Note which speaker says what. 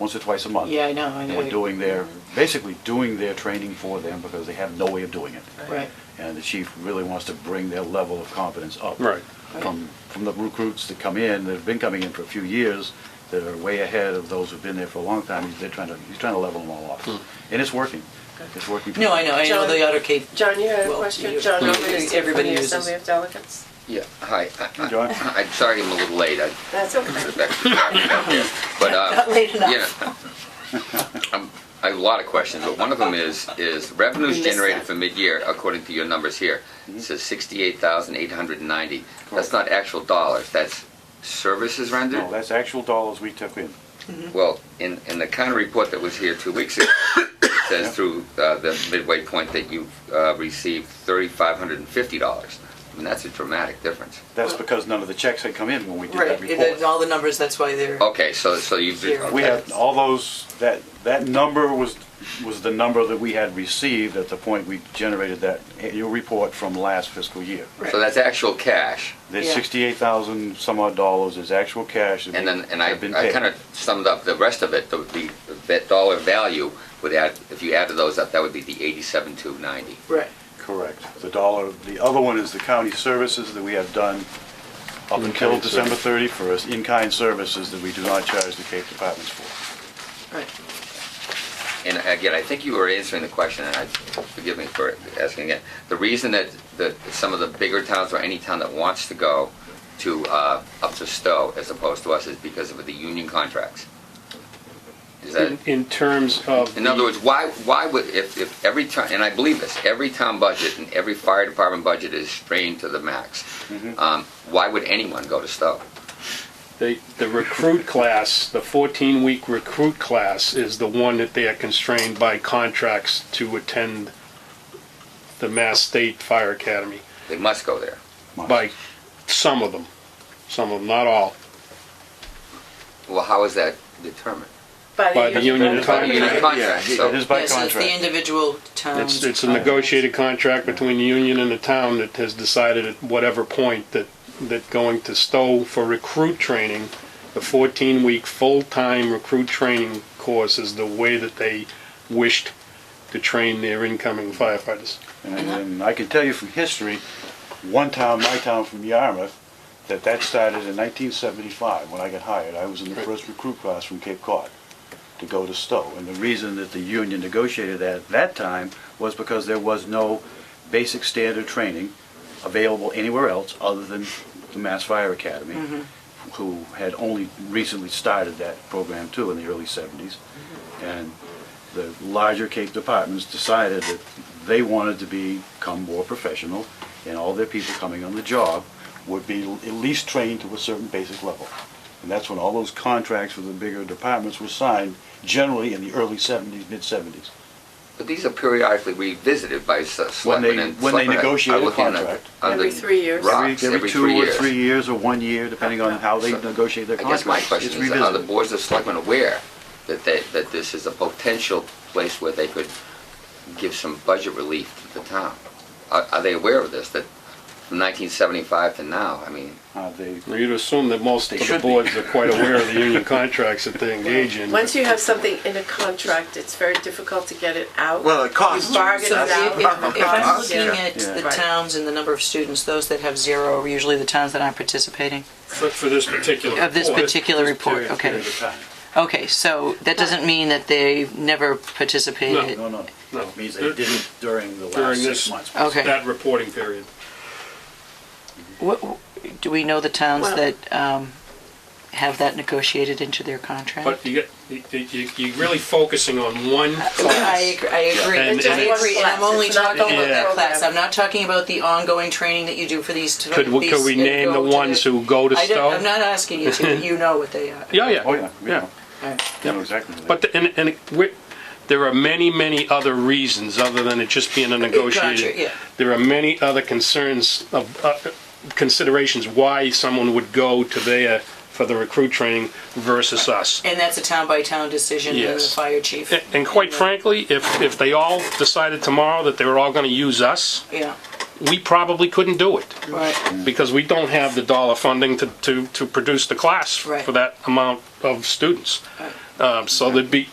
Speaker 1: once or twice a month.
Speaker 2: Yeah, I know, I
Speaker 1: And
Speaker 2: know.
Speaker 1: we're doing their, basically doing their training for them because they have no way of doing it.
Speaker 2: Right,
Speaker 1: And the chief really wants to bring their level of competence up.
Speaker 3: Right.
Speaker 1: From, from the recruits that come in, that have been coming in for a few years, that are way ahead of those who've been there for a long time, he's, they're trying to, he's trying to level them all off. And it's working. It's working.
Speaker 2: no, I know, I know the
Speaker 4: John-
Speaker 2: Otter Cape,
Speaker 4: John, you had a
Speaker 2: Well,
Speaker 4: question?
Speaker 2: you-
Speaker 4: John
Speaker 2: you-
Speaker 4: Overton,
Speaker 2: everybody
Speaker 4: from the
Speaker 2: uses-
Speaker 4: Assembly of Delegates?
Speaker 5: Yeah, hi. I- I-
Speaker 1: John?
Speaker 5: I'm sorry I'm a little late. I
Speaker 4: That's okay.
Speaker 5: that's not there. But, uh,
Speaker 2: not late enough.
Speaker 5: yeah. Um, I have a lot of questions, but one of them is, is
Speaker 4: We
Speaker 5: revenues
Speaker 4: missed
Speaker 5: generated
Speaker 4: that.
Speaker 5: for mid-year, according to your numbers here,
Speaker 2: Mm-hmm.
Speaker 5: it says 68,890. That's not actual dollars, that's services rendered?
Speaker 1: No, that's actual dollars we took in.
Speaker 5: Well, in, in the counter report that was here two weeks ago, it says through uh, the midway point that you've uh, received $3,550. I mean, that's a dramatic difference.
Speaker 1: That's because none of the checks had come in when we did
Speaker 2: right,
Speaker 1: that report.
Speaker 2: all the numbers, that's why they're,
Speaker 1: Oh.
Speaker 5: Okay, so, so you've...
Speaker 2: Here.
Speaker 1: We
Speaker 5: okay.
Speaker 1: had all those, that, that number was, was the number that we had received at the point we generated that annual report from last fiscal year.
Speaker 2: right.
Speaker 5: So that's actual cash.
Speaker 1: The
Speaker 2: Yeah.
Speaker 1: sixty-eight thousand some odd dollars is actual cash that
Speaker 5: And then, and I,
Speaker 1: have been
Speaker 5: I
Speaker 1: paid.
Speaker 5: kind of summed up the rest of it, the, the, that dollar value would add, if you added those up, that would be the eighty-seven, two ninety.
Speaker 2: Right,
Speaker 1: Correct. The dollar, the other one is the county services that we have done up until
Speaker 3: In-kind
Speaker 1: December thirty-first, in-kind services that we do not charge the Cape Departments for.
Speaker 2: right.
Speaker 5: And again, I think you were answering the question, and I, forgive me for asking again. The reason that, that some of the bigger towns or any town that wants to go to, uh, up to Stowe as opposed to us is because of the union contracts. Is that?
Speaker 3: In, in terms of.
Speaker 5: In other
Speaker 3: the-
Speaker 5: words, why, why would, if, if every town, and I believe this, every town budget and every fire department budget is strained to the max.
Speaker 1: Mm-hmm.
Speaker 5: Um, Why would anyone go to Stowe?
Speaker 3: The, the recruit class, the 14-week recruit class is the one that they are constrained by contracts to attend the Mass State Fire Academy,
Speaker 5: They must go there.
Speaker 3: by some of them, some of them, not all,
Speaker 5: Well, how is that determined?
Speaker 3: by the union
Speaker 1: By the
Speaker 5: Union
Speaker 3: contract.
Speaker 5: contract,
Speaker 1: It
Speaker 5: so,
Speaker 1: is by
Speaker 2: Yeah, so it's the
Speaker 1: contract.
Speaker 2: individual towns.
Speaker 3: It's, it's a negotiated contract between the union and the town that has decided at whatever point that, that going to Stowe for recruit training, the 14-week full-time recruit training course is the way that they wished to train their incoming firefighters.
Speaker 1: And and I can tell you from history, one town, my town from Yarmouth, that that started in nineteen seventy-five, when I got hired. I was in the first recruit class from Cape Cod to go to Stowe. And the reason that the union negotiated that at that time was because there was no basic standard training available anywhere else other than the Mass Fire Academy, who had only recently started that program too in the early seventies. And the larger Cape departments decided that they wanted to become more professional, and all their people coming on the job would be l- at least trained to a certain basic level. And that's when all those contracts with the bigger departments were signed, generally in the early 70s, mid-70s.
Speaker 5: but these are periodically revisited by s-
Speaker 1: When they-
Speaker 5: selectmen and...
Speaker 1: when they
Speaker 5: selectmen are
Speaker 1: negotiate a
Speaker 5: looking at-
Speaker 1: contract.
Speaker 5: on the
Speaker 4: Every three years.
Speaker 5: Rocks, every three
Speaker 1: two or
Speaker 5: years.
Speaker 1: three years or one year, depending on how they
Speaker 5: So,
Speaker 1: negotiate their
Speaker 5: I guess
Speaker 1: contracts.
Speaker 5: my
Speaker 1: It's
Speaker 5: question is, are the
Speaker 1: revisited.
Speaker 5: boards of selectmen aware that they, that this is a potential place where they could give some budget relief to the town? Are, are they aware of this, that from nineteen seventy-five to now, I mean,
Speaker 1: Uh, they-
Speaker 3: Now, You'd assume that most
Speaker 1: They
Speaker 3: of the
Speaker 1: should be.
Speaker 3: boards are quite aware of the union contracts that they engage in.
Speaker 4: Once you have something in a contract, it's very difficult to get it out.
Speaker 6: Well, it costs.
Speaker 4: You bargain it
Speaker 2: So
Speaker 4: out.
Speaker 2: if, if- if I'm
Speaker 4: Yeah.
Speaker 2: looking at the
Speaker 4: Right.
Speaker 2: towns and the number of students, those that have zero are usually the towns that aren't participating
Speaker 3: For, for this particular.
Speaker 2: of this particular report. Okay, okay. So that doesn't mean that they never participated.
Speaker 1: No, no,
Speaker 3: No.
Speaker 1: it means they didn't during the
Speaker 3: During
Speaker 1: last six
Speaker 3: this-
Speaker 1: months.
Speaker 2: Okay.
Speaker 3: That reporting period.
Speaker 2: What, do we know the towns
Speaker 4: Well-
Speaker 2: that um, have that negotiated into their contract?
Speaker 3: But you, get- you- you, you're really focusing on one
Speaker 2: I
Speaker 3: class.
Speaker 2: agree. I agree.
Speaker 3: And-
Speaker 2: I
Speaker 3: and-
Speaker 2: agree. And I'm only
Speaker 4: It's not
Speaker 2: talking about
Speaker 3: Yeah.
Speaker 2: that class. I'm not talking about the ongoing training that you do for these.
Speaker 3: Could, we- could we
Speaker 2: these- uh,
Speaker 3: name the
Speaker 2: go to
Speaker 3: ones who go to
Speaker 2: I
Speaker 3: Stowe?
Speaker 2: don't, I'm not asking you to. You know what they are.
Speaker 3: Yeah,
Speaker 1: Oh,
Speaker 3: yeah.
Speaker 1: yeah, we know.
Speaker 2: All right.
Speaker 1: We know exactly. what they-
Speaker 3: But, the- and, and we- there are many, many other reasons other than it just being a
Speaker 2: Gotcha, yeah.
Speaker 3: negotiated. There are many other concerns of, uh, considerations why someone would go to their, for the recruit training versus us.
Speaker 2: And that's a town by town decision by the
Speaker 3: Yes.
Speaker 2: fire chief.
Speaker 3: A- And quite frankly, if, if they all decided tomorrow that they were all gonna use us,
Speaker 2: Yeah.
Speaker 3: we probably couldn't do it.
Speaker 2: Right.
Speaker 3: Because we don't have the dollar funding to, to, to produce the class
Speaker 2: Right.
Speaker 3: for that amount of students.
Speaker 2: Right.
Speaker 3: Um, So there'd be,